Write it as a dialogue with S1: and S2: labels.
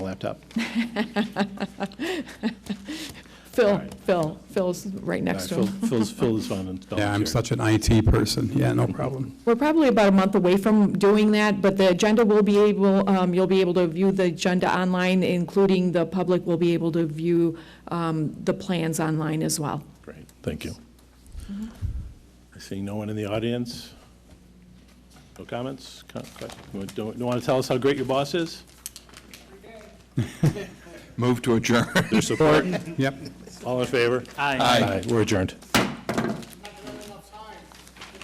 S1: laptop. All
S2: Phil,
S1: right.
S2: Phil, Phil's right next to
S1: All right,
S2: him.
S1: Phil- Phil's, Phil is on and
S3: Yeah, I'm such an IT person. Yeah, no problem.
S2: We're probably about a month away from doing that, but the agenda will be able, um, you'll be able to view the agenda online, including the public will be able to view um, the plans online as well.
S1: Great, thank you. I see no one in the audience. No comments? Co- questions? Don't, don't want to tell us how great your boss is?
S4: Move to adjourn.
S1: Their support?
S3: Yep.
S1: All in favor?
S4: Aye.
S1: We're adjourned.